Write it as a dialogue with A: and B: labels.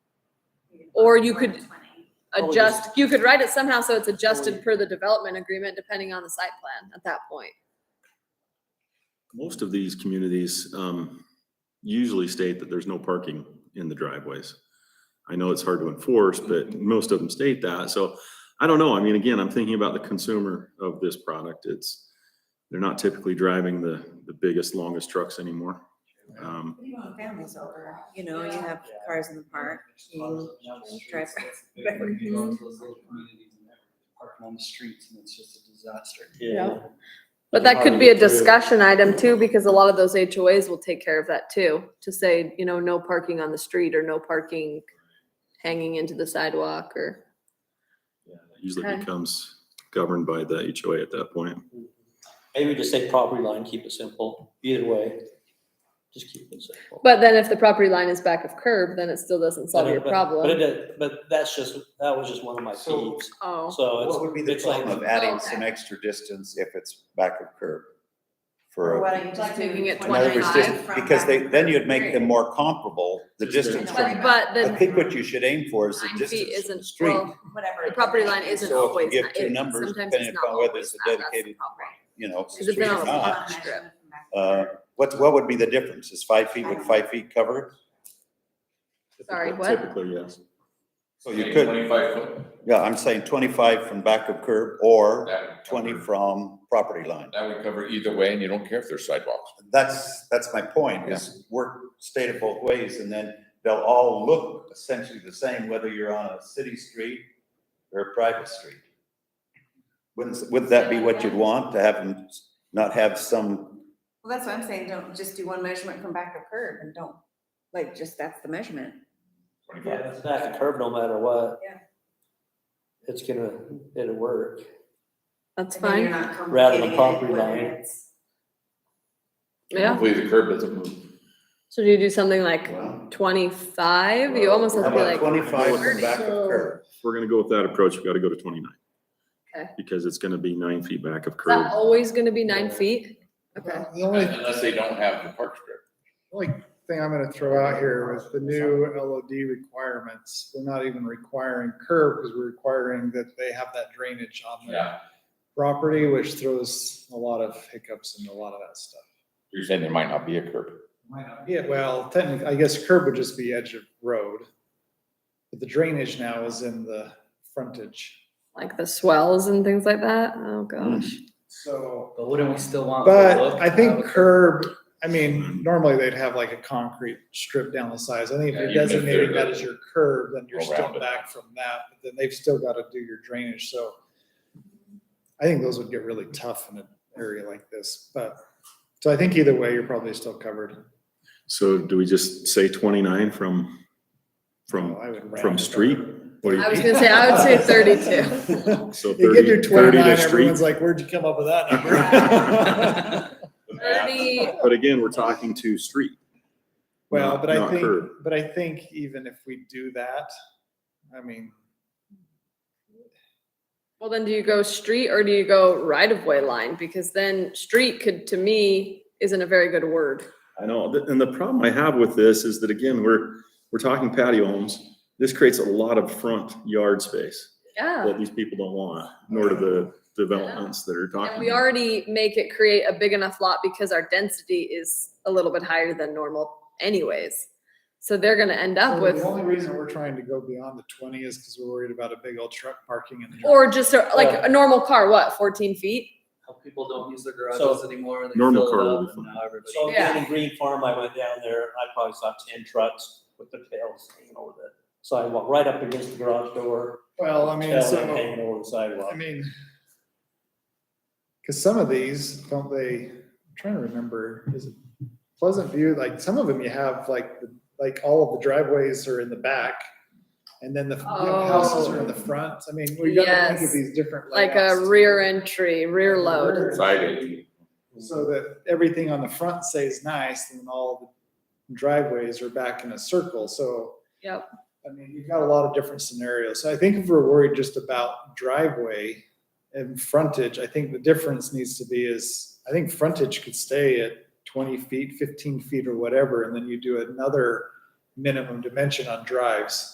A: Or you could-
B: 20.
C: Or we just-
A: adjust, you could write it somehow so it's adjusted per the development agreement depending on the site plan at that point.
D: Most of these communities um, usually state that there's no parking in the driveways. I know it's hard to enforce, but most of them state that. So I don't know. I mean, again, I'm thinking about the consumer of this product. It's, they're not typically driving the, the biggest, longest trucks anymore. Um,
C: Even Families over, you know, you have cars in the park. you drive
E: Driver. You go into those little communities and they're parking on the streets and it's just a disaster.
A: Yeah. But that could be a discussion item too, because a lot of those HOAs will take care of that too, to say, you know, no parking on the street or no parking hanging into the sidewalk or.
D: yeah, it Usually
A: Okay.
D: becomes governed by the HOA at that point.
F: Maybe just say property line, keep it simple, either way, just keep it simple.
A: But then if the property line is back of curb, then it still doesn't solve your
F: But- But it,
A: problem.
F: did- but that's just, that was just one of my
E: So-
F: peeves,
A: Oh,
F: so
G: What would be the
F: it's like-
G: problem of adding
A: Okay.
G: some extra distance if it's back of curb? For,
C: Why
G: a-
C: don't you
B: Like
C: just
B: making
C: do
B: it
G: in other words, just,
B: 25
C: from
G: because they,
C: back
G: then you'd make them
C: curb?
G: more comparable, the
D: Just
G: distance
C: the-
G: from.
A: but, but
G: I
A: then
G: think what you should aim for is the
A: nine feet
G: distance from the
A: isn't,
G: street,
A: well,
C: Whatever.
A: the property line isn't
G: So if you
A: always,
G: give
A: not-
G: two
A: it-
G: numbers,
A: sometimes
G: depending
A: it's not
G: upon whether
A: always
G: it's a
A: that, that's the
G: dedicated-
A: problem.
G: you know,
A: Because
G: street
A: if
G: or
A: they're on the
G: not.
A: front strip.
G: Uh, what, what would be the difference? Is five feet, would five feet cover?
A: Sorry, what?
D: Typically, yes.
G: So you could,
H: Twenty-five foot.
G: yeah, I'm saying twenty-five from back of curb or
H: that would
G: twenty
H: cover-
G: from property line.
H: That would cover either way, and you don't care if there's sidewalks.
G: That's, that's my point, is work stated both ways, and then they'll all look essentially the same, whether you're on a city street or a private street. Wouldn't, would that be what you'd want, to have them s- not have some,
C: Well, that's what I'm saying, don't just do one measurement from back of curb and don't, like, just that's the measurement.
F: yeah, if it's back a curb no matter what.
C: Yeah.
F: It's gonna, it'll work.
A: That's
C: And then you're
A: fine,
C: not
F: Rather
C: complicating it,
F: than property
C: whether
F: line.
C: it's-
A: yeah.
H: Hopefully the curb doesn't move.
A: So do you do something like
G: well,
A: twenty-five? You almost
G: how
A: have to be
G: about
A: like,
G: twenty-five from back of
A: So-
G: curb?
D: If we're gonna go with that approach, we've got to go to twenty-nine.
A: Okay.
D: Because it's gonna be nine feet back of
A: is that
D: curb.
A: always gonna be nine feet? Okay.
I: Well, The only
H: Unless they don't have the park strip.
I: only thing I'm gonna throw out here is the new LOD requirements. We're not even requiring curb because we're requiring that they have that drainage on their
H: Yeah,
I: property, which throws a lot of hiccups and a lot of that stuff.
H: you're saying there might not be a curb.
I: Yeah, well, technically, I guess curb would just be edge of road. But the drainage now is in the frontage.
A: Like the swells and things like that? Oh, gosh.
I: So
E: But wouldn't we still want? the
I: But
E: look
I: I think
E: of-
I: curb, I mean, normally they'd have like a concrete strip down the sides. I think if
H: Yeah,
I: you're
H: even if
I: designating
H: they're
I: that as your curb, then you're
H: all
I: still
H: rounded.
I: back from that, but then they've still got to do your drainage, so. I think those would get really tough in an area like this, but, so I think either way, you're probably still covered.
D: So do we just say twenty-nine from, from,
I: Oh, I would round
D: from
I: it up.
D: street? What do you
A: I was
D: think?
A: gonna say, I would say 32.
D: So
I: You get
D: 30
I: your
D: 30 to
I: twenty-nine,
D: street.
I: everyone's like, where'd you come up with that number?
A: Thirty,
D: But again, we're talking to street.
I: Well,
D: not-
I: but I
D: not
I: think,
D: curb.
I: but I think even if we do that, I mean,
A: well then do you go street or do you go right-of-way line? Because then street could, to me, isn't a very good word.
D: I know, th- and the problem I have with this is that again, we're, we're talking patio homes. This creates a lot of front yard space
A: Yeah.
D: that these people don't want, nor do the developments that are talking.
A: And we already make it create a big enough lot because our density is a little bit higher than normal anyways. So they're gonna end
I: So
A: up with,
I: The only reason we're trying to go beyond the twenty is because we're worried about a big old truck parking in the.
A: or just a- like a normal car, what, fourteen feet?
E: How people don't use their
F: So-
E: garages anymore. they
D: Normal
E: fill it
D: car
E: up
D: will be
E: and
D: fine.
E: now everybody-
F: So
A: Yeah.
F: down in Green Farm, I went down there, I probably saw ten trucks with their tails hanging over the sidewalk, right up against the garage door.
I: Well, I mean,
F: tail
I: so,
F: Hanging over the sidewalk.
I: I mean. Cause some of these, don't they, I'm trying to remember, is it Pleasant View, like some of them you have like, the- like all of the driveways are in the back. And then the you know, houses are in the front. I mean, we gotta think
A: Oh. Yes.
I: of these different
A: like
I: layouts
A: a
I: to-
A: rear entry, rear load.
H: Side entry.
I: So that everything on the front stays nice and all the driveways are back in a circle, so.
A: Yep.
I: I mean, you've got a lot of different scenarios. So I think if we're worried just about driveway and frontage, I think the difference needs to be is, I think frontage could stay at twenty feet, fifteen feet or whatever, and then you do another minimum dimension on drives.